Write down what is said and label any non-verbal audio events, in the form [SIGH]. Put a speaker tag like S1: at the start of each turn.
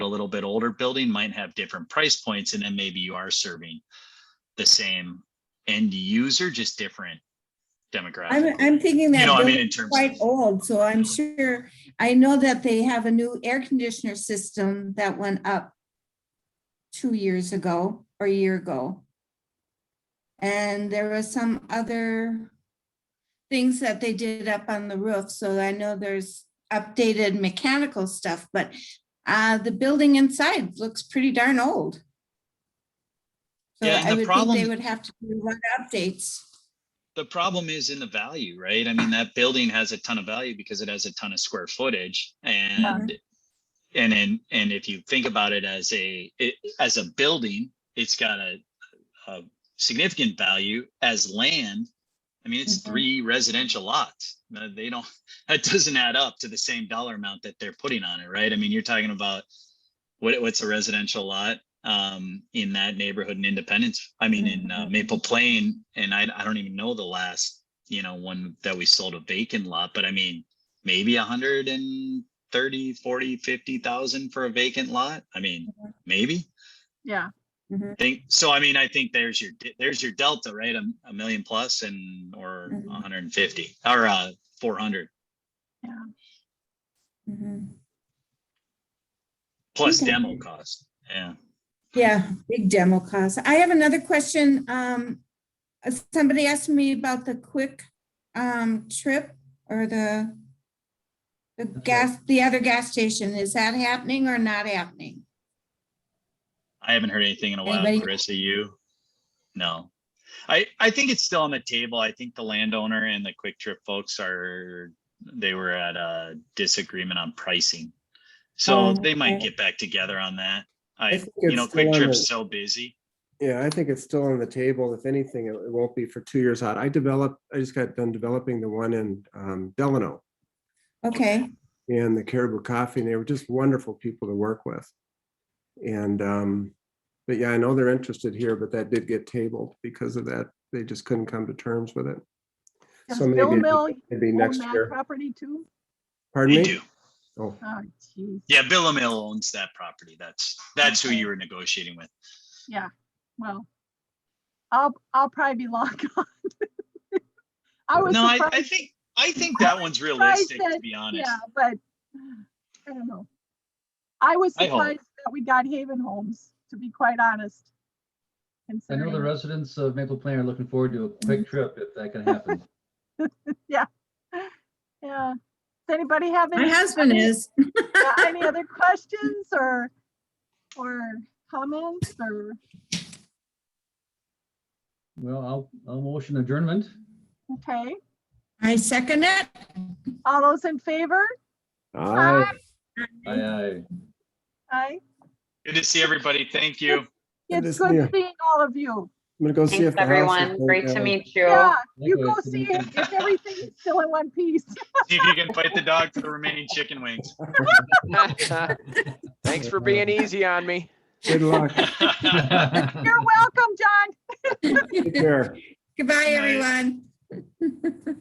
S1: a little bit older building might have different price points and then maybe you are serving the same end user, just different
S2: I'm,
S1: demographic.
S2: I'm thinking
S1: You
S2: that
S1: know, I mean,
S2: building's
S1: in terms
S2: quite
S1: of,
S2: old, so I'm sure, I know that they have a new air conditioner system that went up two years ago or a year ago. And there was some other things that they did up on the roof, so I know there's updated mechanical stuff, but uh, the building inside looks pretty darn old. So
S1: Yeah, and
S2: I
S1: the
S2: would think
S1: problem-
S2: they would have to do run updates.
S1: the problem is in the value, right? I mean, that building has a ton of value because it has a ton of square footage and and and and if you think about it as a it, as a building, it's got a, a significant value as land. I mean, it's
S2: Mhm.
S1: three residential lots. Uh, They don't [LAUGHS] that doesn't add up to the same dollar amount that they're putting on it, right? I mean, you're talking about what what's a residential lot um in that neighborhood in Independence? I mean, in uh,
S2: Mhm.
S1: Maple Plain, and I I don't even know the last you know one that we sold a vacant lot, but I mean maybe a hundred and thirty, forty, fifty thousand for a vacant lot. I mean, maybe
S3: Yeah,
S2: Mhm.
S1: think so. I mean, I think there's your de- there's your delta, right? A, a million plus and or
S2: Mhm.
S1: 150 or uh 400
S2: Mhm.
S1: plus
S2: Okay.
S1: demo cost. Yeah.
S2: Yeah, big demo cost. I have another question. Um, uh, somebody asked me about the quick um trip or the the gas, the other gas station. Is that happening or not happening?
S1: I haven't heard anything in a while.
S2: Anybody-
S1: Carissa, you? No. I, I think it's still on the table. I think the landowner and the Quick Trip folks are, they were at a disagreement on pricing. So
S2: Oh,
S1: they might
S2: okay.
S1: get back together on that.
S4: I
S1: I,
S4: think
S1: you
S4: it's
S1: know,
S4: still
S1: Quick
S4: on
S1: Trip's
S4: the-
S1: so busy.
S4: Yeah, I think it's still on the table. If anything, it it won't be for two years out. I developed, I just got done developing the one in um, Delano
S2: Okay,
S4: and the Caribou Coffee, and they were just wonderful people to work with. And, um, but yeah, I know they're interested here, but that did get tabled because of that. They just couldn't come to terms with it.
S3: does
S4: So
S3: Bill
S4: maybe,
S3: Mill
S4: maybe
S3: own
S4: next
S3: that
S4: year.
S3: property too?
S4: Pardon
S1: They
S4: me?
S1: do.
S4: Oh,
S3: Oh, geez,
S1: Yeah, Billamil owns that property. That's, that's who you were negotiating with.
S3: yeah, well, I'll, I'll probably be [LAUGHS] long gone. I was
S1: No, I, I
S3: surprised,
S1: think, I think that one's realistic, to be honest.
S3: yeah, but I don't know. I was
S1: I hope.
S3: surprised that we got Haven Homes, to be quite honest.
S5: I know the
S3: Considering,
S5: residents of Maple Plain are looking forward to a
S3: Mm-hmm.
S5: quick trip if that can happen.
S3: yeah. Does anybody have
S2: my
S3: any,
S2: husband is.
S3: yeah, [LAUGHS] any other questions or, or comments or,
S5: Well, I'll, I'll motion adjournment.
S3: okay?
S2: I second it.
S3: All those in favor?
S4: aye.
S5: Aye, aye.
S3: Aye.
S1: Good to see everybody. Thank you.
S4: Good
S3: It's
S4: to see you.
S3: good seeing all of you.
S4: I'm gonna go see if
S6: Thanks,
S4: the house is
S6: everyone.
S4: still
S6: Great to
S4: down.
S6: meet you.
S3: Yeah, you go
S5: Likewise,
S3: see
S5: thank you.
S3: if if everything's still in one piece.
S1: See if you can fight the dog for the remaining chicken wings.
S7: [LAUGHS] Thanks for being easy on me.
S4: Good luck.
S5: [LAUGHS]
S3: You're welcome, John.
S6: [LAUGHS]
S4: Take care.
S2: Goodbye,
S1: Night.
S2: everyone.